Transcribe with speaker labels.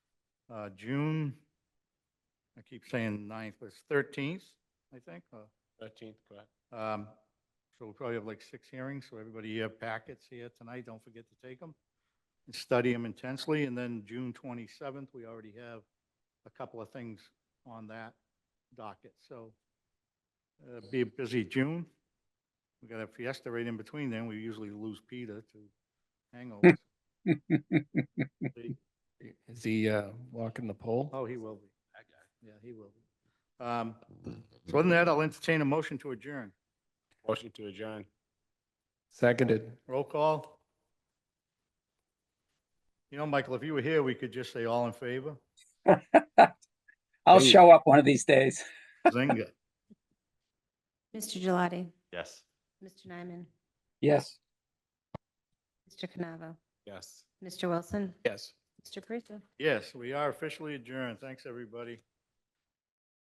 Speaker 1: uh, June, I keep saying ninth, but it's thirteenth, I think. uh,
Speaker 2: Thirteenth, correct?
Speaker 1: um, So we'll probably have like six hearings, so everybody have packets here tonight, don't forget to take them. and Study them intensely, and then June twenty-seventh, we already have a couple of things on that docket, so uh, be a busy June. We got a fiesta right in between then, we usually lose Peter to hangovers.
Speaker 3: Is he uh, walking the pole?
Speaker 1: Oh, he will be. Yeah, he will be. Um, So other than that, I'll entertain a motion to adjourn.
Speaker 2: Motion to adjourn.
Speaker 3: Seconded.
Speaker 1: Roll call. You know, Michael, if you were here, we could just say all in favor.
Speaker 4: I'll
Speaker 2: Hey.
Speaker 4: show up one of these days.
Speaker 1: Zinga.
Speaker 5: Mr. Gelati,
Speaker 2: Yes.
Speaker 5: Mr. Nyman,
Speaker 4: Yes.
Speaker 5: Mr. Canavo,
Speaker 2: Yes.
Speaker 5: Mr. Wilson,
Speaker 3: Yes.
Speaker 5: Mr. Parisi.
Speaker 1: Yes, we are officially adjourned. Thanks, everybody.